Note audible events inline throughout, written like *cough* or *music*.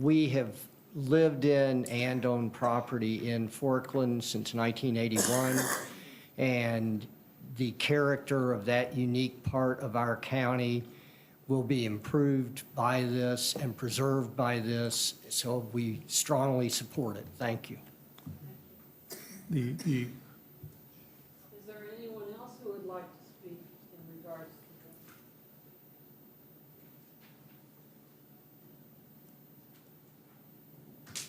we have lived in and owned property in Forkland since 1981, and the character of that unique part of our county will be improved by this and preserved by this, so we strongly support it. Thank you. The, the, Is there anyone else who would like to speak in regards to this?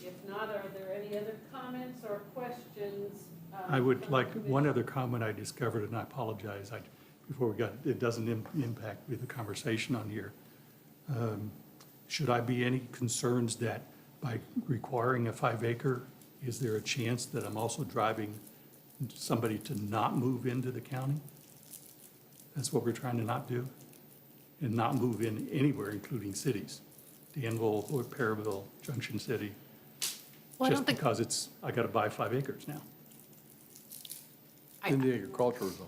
If not, are there any other comments or questions? uh, I would from like, the one commission? other comment I discovered, and I apologize, I, before we got, it doesn't im- impact with the conversation on here. Um, Should I be any concerns that by requiring a five acre, is there a chance that I'm also driving somebody to not move into the county? That's what we're trying to not do, and not move in anywhere, including cities, Danville, Fort Perryville, Junction City, Well, I just don't think, because it's, I gotta buy five acres now. in the agricultural zone.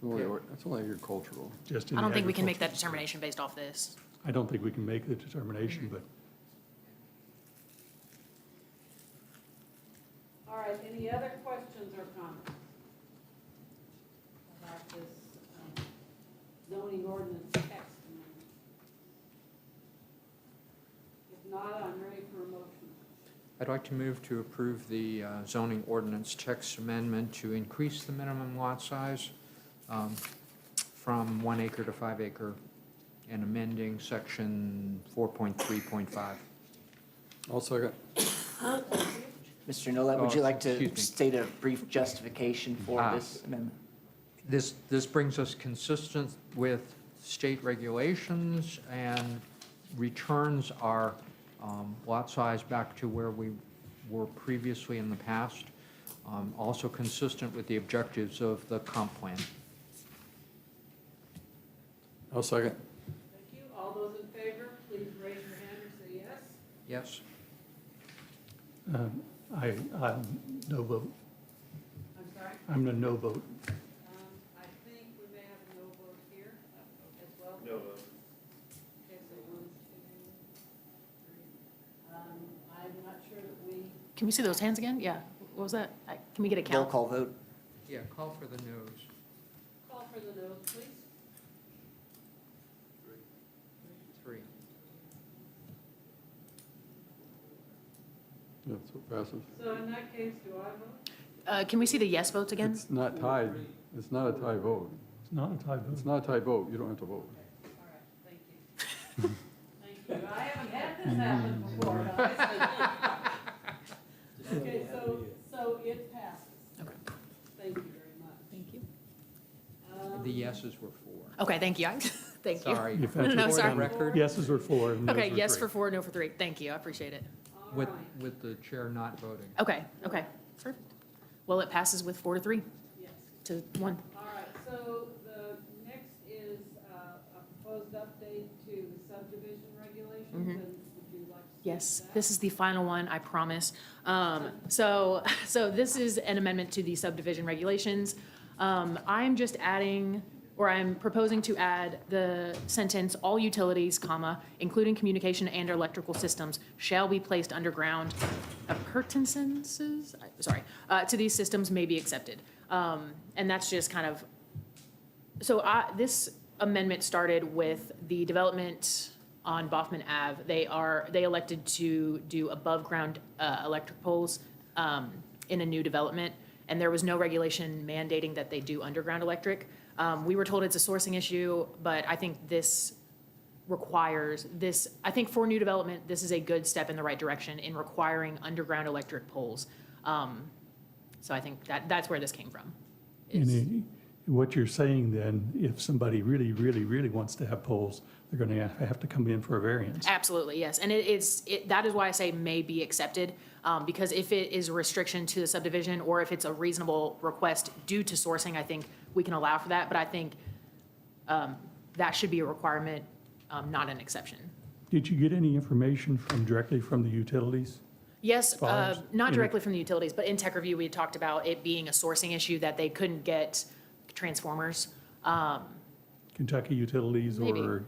It's only, it's only agricultural. just in I the don't think we can make that agriculture. determination based off this. I don't think we can make the determination, but All right, any other questions or comments? About this um, zoning ordinance text amendment? If not, I'm ready for a motion. I'd like to move to approve the uh, zoning ordinance text amendment to increase the minimum lot size um, from one acre to five acre and amending section 4.3.5. I'll second. Mr. Nolet, would Oh, you like to excuse me. state a brief justification for Ah. this amendment? This, this brings us consistent with state regulations and returns our um, lot size back to where we were previously in the past, Um, also consistent with the objectives of the comp plan. I'll second. Thank you. All those in favor, please raise your hand or say yes. Yes? um, I, I'm no vote. I'm sorry. I'm a no vote. Um, I think we may have a no vote here as well. No vote. Okay, so one, two, three. Um, I'm not sure that we, Can we see those hands again? Yeah. What was that? I- Can we get a Roll count? call vote. Yeah, call for the nose. call for the noes, please. Three. Yeah, so it passes. So in that case, do I vote? Uh, Can we see the yes votes again? It's not tied, it's not a tie vote. It's not a tie vote. It's not a tie vote, you don't have to vote. All right, thank you. *laughs* Thank you. I haven't had this happen before, honestly. Okay, so, so it passes. Okay. Thank you very much. Thank you. Um, The yeses were four. Okay, thank you. *laughs* I- Thank you. Sorry. If For that's *laughs* No, the what's sorry. on record, Yeses were four and noes Okay, were yes um, three. for four, no for three. Thank you. I appreciate it. All With, right. with the chair not voting. Okay, okay. Perfect. Well, it passes with four to three Yes. to one. All right, so the next is uh, a proposed update to the subdivision regulations, and Mhm. would you like to? speak to Yes, that? this is the final one, I promise. Um, So, *laughs* so this is an amendment to the subdivision regulations. Um, I'm just adding, or I'm proposing to add the sentence, "All utilities, comma, including communication and electrical systems, shall be placed underground. Appurtenances, I- sorry, uh, to these systems may be accepted." Um, And that's just kind of so I, this amendment started with the development on Boffman Ave. They are, they elected to do above-ground uh, electric poles um, in a new development, and there was no regulation mandating that they do underground electric. Um, We were told it's a sourcing issue, but I think this requires this, I think for new development, this is a good step in the right direction in requiring underground electric poles. Um, So I think that, that's where this came from. And is- i- what you're saying then, if somebody really, really, really wants to have polls, they're going to have to come in for a variance. Absolutely, yes. And it is, it, that is why I say may be accepted, um, because if it is a restriction to the subdivision or if it's a reasonable request due to sourcing, I think we can allow for that, but I think, um, that should be a requirement, um, not an exception. Did you get any information from, directly from the utilities? Yes, uh, Farms? not Mhm. directly from the utilities, but in tech review, we had talked about it being a sourcing issue that they couldn't get transformers. Um, Kentucky Utilities Maybe. or